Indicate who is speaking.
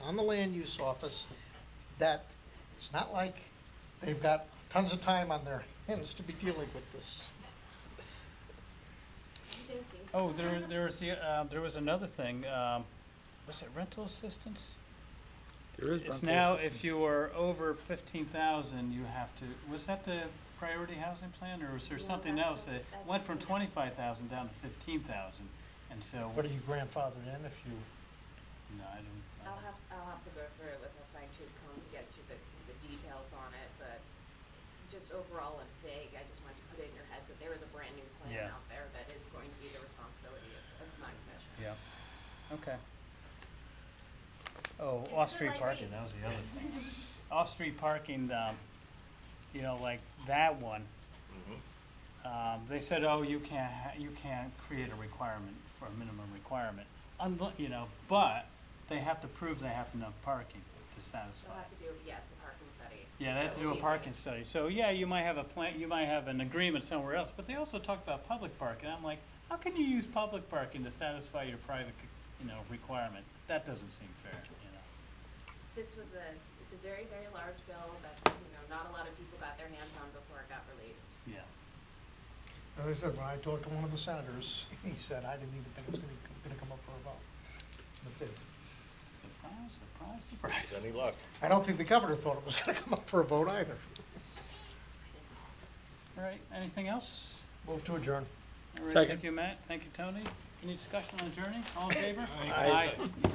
Speaker 1: on the land use office that it's not like they've got tons of time on their hands to be dealing with this.
Speaker 2: You can see.
Speaker 3: Oh, there, there was the, uh, there was another thing, um, was it rental assistance?
Speaker 4: There is
Speaker 3: It's
Speaker 4: rental
Speaker 3: now,
Speaker 4: assistance.
Speaker 3: if you are over fifteen thousand, you have to, was that the priority housing plan, or was there
Speaker 2: No,
Speaker 3: something
Speaker 2: that's
Speaker 3: else
Speaker 2: a-
Speaker 3: that
Speaker 2: that's
Speaker 3: went from
Speaker 2: something else.
Speaker 3: twenty-five thousand down to fifteen thousand? And so,
Speaker 1: What are you grandfathered in if you,
Speaker 3: no, I don't,
Speaker 2: I'll have, I'll have to go through it with a fine tooth comb to get you the, the details on it, but just overall in vague, I just wanted to put it in your heads that there is a brand new plan
Speaker 3: Yeah.
Speaker 2: out there that is going to be the responsibility of, of my commission.
Speaker 3: yeah, okay.
Speaker 2: It's a
Speaker 3: Oh,
Speaker 2: good
Speaker 3: off-street
Speaker 2: light
Speaker 3: parking,
Speaker 2: read.
Speaker 3: that was the other thing. Off-street parking, um, you know, like that one, um, they said, oh, you can't, ha- you can't create a requirement for a minimum requirement. Unli- you know, but they have to prove they have enough parking to
Speaker 2: They'll
Speaker 3: satisfy.
Speaker 2: have to do, yes, a parking study.
Speaker 3: Yeah, they have
Speaker 2: That
Speaker 3: to
Speaker 2: will
Speaker 3: do
Speaker 2: be
Speaker 3: a parking
Speaker 2: great.
Speaker 3: study. So, yeah, you might have a plan, you might have an agreement somewhere else, but they also talk about public parking. I'm like, how can you use public parking to satisfy your private, you know, requirement? That doesn't seem fair, you know.
Speaker 2: This was a, it's a very, very large bill that, you know, not a lot of people got their hands on before it got released.
Speaker 3: Yeah,
Speaker 1: as I said, when I talked to one of the senators, he said, I didn't even think it was gonna, gonna come up for a vote. But it did.
Speaker 3: surprise, surprise, surprise.
Speaker 5: Any luck?
Speaker 1: I don't think the governor thought it was gonna come up for a vote either.
Speaker 3: All right, anything else?
Speaker 1: Move to adjourn.
Speaker 3: All right,
Speaker 4: Second.
Speaker 3: Thank you, Matt. Thank you, Tony. Any discussion on adjourning? All in favor?
Speaker 5: Aye.
Speaker 3: Aye.